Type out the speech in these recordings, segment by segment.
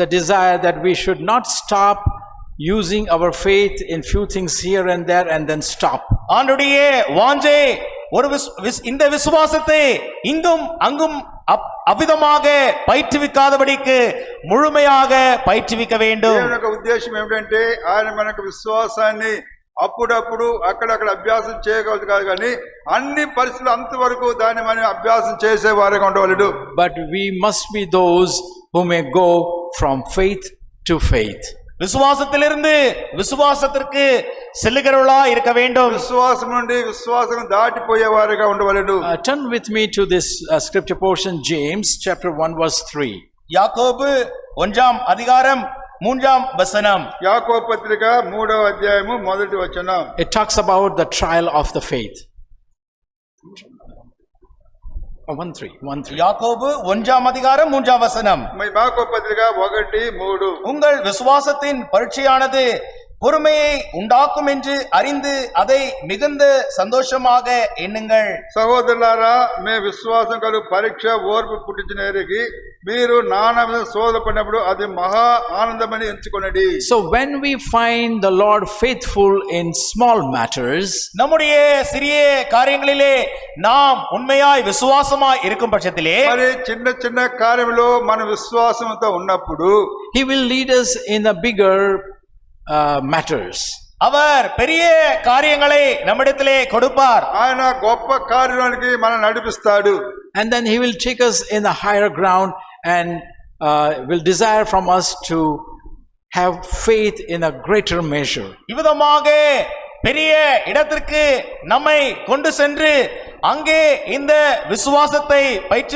the desire that we should not stop using our faith in few things here and there and then stop. ஆண்டுடைய வாஞ்சை ஒரு விஸ்- விஸ்- இந்த விசுவாசத்தை இங்கும் அங்கும் அப்- அவ்விதமாக பயிற்றுவிக்காதபடிக்கு முழுமையாக பயிற்றுவிக்க வேண்டும் దేవుని యొక్క ఉద్దేశం ఏమిటంటే ఆయన మనకు విశ్వాసాన్ని అప్పుడప్పుడు అక్కడక్కడ అభ్యాసం చేయగలదు కాదు కానీ అన్ని పరిస్థితులు అంతవరకు దాన్ని మనం అభ్యాసం చేసే వారిగా ఉండవలెను But we must be those who may go from faith to faith. விசுவாசத்திலிருந்து விசுவாசத்திற்கு செல்லுகிறவளா இருக்க வேண்டும் విశ్వాసం నుండి విశ్వాసం దాటిపోయే వారిగా ఉండవలెను Uh, turn with me to this uh, scripture portion, James chapter 1, verse 3. யாக்கோபு ஒன்றாம் அதிகாரம் மூன்றாம் வசனம் యాకో పత్రిక మూడవ అధ్యాయము మొదటి వచనం It talks about the trial of the faith. Oh, 1 3, 1 3. யாக்கோபு ஒன்றாம் அதிகாரம் மூன்றாம் வசனம் మరి యాకో పత్రిక ఒకటి మూడు உங்கள் விசுவாசத்தின் பரீட்சையானது பொறுமையை உண்டாக்கும் என்று அறிந்து அதை மிகுந்த சந்தோஷமாக எண்ணுங்கள் సహోదరులారా మీ విశ్వాసం కలు పరీక్ష ఓర్పు పుట్టించిన ఎరిగి మీరు నానా విధ శోధ పడినప్పుడు అది మహా ఆనందమని ఎంచుకొనడి So when we find the Lord faithful in small matters, நம்முடைய சிறிய காரியங்களிலே நாம் உண்மையாய் விசுவாசமாய் இருக்கும் பட்சத்திலே మరి చిన్న చిన్న కార్యంలో మన విశ్వాసంతో ఉన్నప్పుడు He will lead us in the bigger uh, matters. அவர் பெரிய காரியங்களை நம்மிடத்திலே கொடுப்பார் ఆయన గొప్ప కార్యానికి మనం నడిపిస్తాడు And then He will take us in the higher ground and uh, will desire from us to have faith in a greater measure. இவ்விதமாக பெரிய இடத்திற்கு நம்மை கொண்டு சென்று அங்கே இந்த விசுவாசத்தை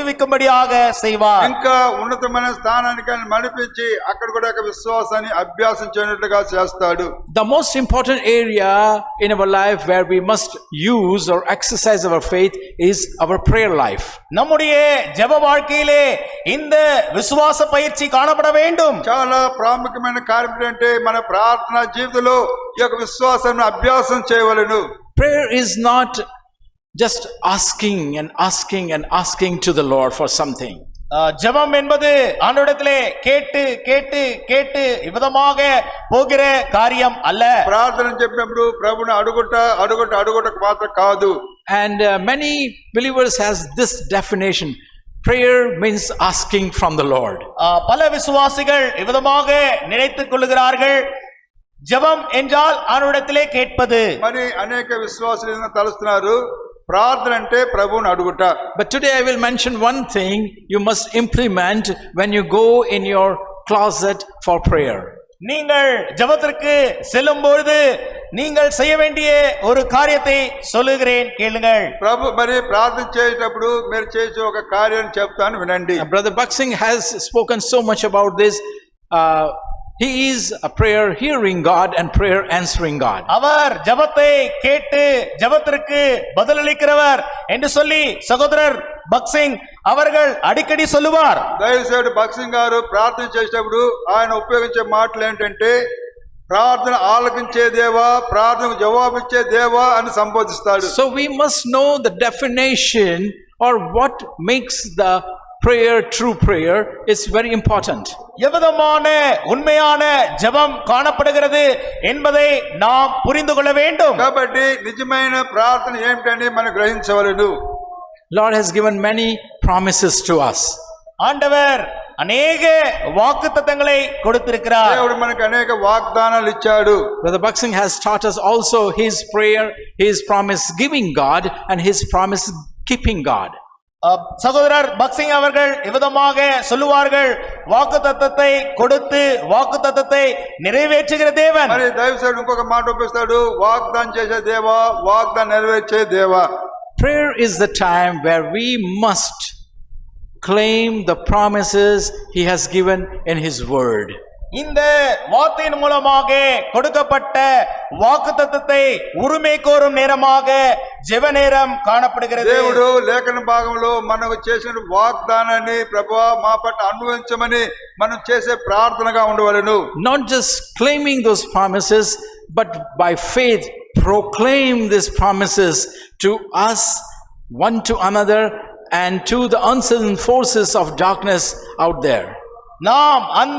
பயிற்றுவிக்கும்படியாக செய்வார் ఇంకా ఉన్నతమైన స్థానానికి ఆయన నడిపించి అక్కడ కూడా ఒక విశ్వాసాన్ని అభ్యాసం చేయనట్లుగా చేస్తాడు The most important area in our life where we must use or exercise our faith is our prayer life. நம்முடைய ஜெப வாழ்க்கையிலே இந்த விசுவாச பயிற்சி காணப்பட வேண்டும் చాలా ప్రాముఖ్యమైన కార్యం ఏంటంటే మన ప్రార్థన జీవితంలో ఈ యొక్క విశ్వాసాన్ని అభ్యాసం చేయవలెను Prayer is not just asking and asking and asking to the Lord for something. அஹ், ஜெபம் என்பது ஆண்டோடத்திலே கேட்டு கேட்டு கேட்டு இவ்விதமாக போகிற காரியம் அல்ல ప్రార్థన చెప్పినప్పుడు ప్రభుని అడుగుట అడుగుట అడుగుట మాత్రం కాదు And uh, many believers has this definition. Prayer means asking from the Lord. அஹ், பல விசுவாசிகள் இவ்விதமாக நினைத்துக் கொள்கிறார்கள் ஜெபம் என்றால் ஆண்டோடத்திலே கேட்பது మరి అనేక విశ్వాసులు ఏదైనా తలుస్తున్నారు ప్రార్థన అంటే ప్రభువుని అడుగుట But today I will mention one thing you must implement when you go in your closet for prayer. நீங்கள் ஜெபத்திற்கு செல்லும் பொழுது நீங்கள் செய்ய வேண்டிய ஒரு காரியத்தை சொல்லுகிறேன் கேளுங்கள் ప్రభు మరి ప్రార్థన చేసేటప్పుడు మీరు చేసే ఒక కార్యం చెప్తాను వినండి Uh, Brother Buxing has spoken so much about this. Uh, he is a prayer hearing God and prayer answering God. அவர் ஜெபத்தை கேட்டு ஜெபத்திற்கு பதிலளிக்கிறவர் என்று சொல்லி சகோதரர் பக்சிங் அவர்கள் அடிக்கடி சொல்லுவார் దయచేసి భక్సింగ్ గారు ప్రార్థన చేసేటప్పుడు ఆయన ఉపయోగించే మాటలు ఏంటంటే ప్రార్థన ఆలకించే దేవా ప్రార్థనకు జవాబిచ్చే దేవా అని సంబోధిస్తాడు So we must know the definition or what makes the prayer true prayer. It's very important. எவ்விதமான உண்மையான ஜெபம் காணப்படுகிறது என்பதை நாம் புரிந்து கொள்ள வேண்டும் కాబట్టి నిజమైన ప్రార్థన ఏమిటని మనం గ్రహించవలెను Lord has given many promises to us. ஆண்டவர் அநேக வாக்குத்தத்தங்களை கொடுத்திருக்கிறார் దేవుడు మనకు అనేక వాగ్దానాలు ఇచ్చాడు Brother Buxing has taught us also his prayer, his promise giving God, and his promise keeping God. அஹ், சகோதரர் பக்சிங் அவர்கள் இவ்விதமாக சொல்லுவார்கள் வாக்குத்தத்தத்தை கொடுத்து வாக்குத்தத்தத்தை நிறைவேற்றுகிற தேவன் మరి దైవసేవుడు ఇంకొక మాట ఉపయోగిస్తాడు వాగ్దానం చేసే దేవా వాగ్దానం నెరవేర్చే దేవా Prayer is the time where we must claim the promises he has given in his word. இந்த வார்த்தையின் மூலமாக கொடுக்கப்பட்ட வாக்குத்தத்தத்தை உரிமை கோரும் நேரமாக ஜெப நேரம் காணப்படுகிறது దేవుడు లేఖన భాగంలో మనకు చేసిన వాగ్దానాన్ని ప్రభువా మా పట్ల అన్వయించమని మనం చేసే ప్రార్థనగా ఉండవలెను not just claiming those promises, but by faith proclaim these promises to us, one to another, and to the uncertain forces of darkness out there. நாம் அந்த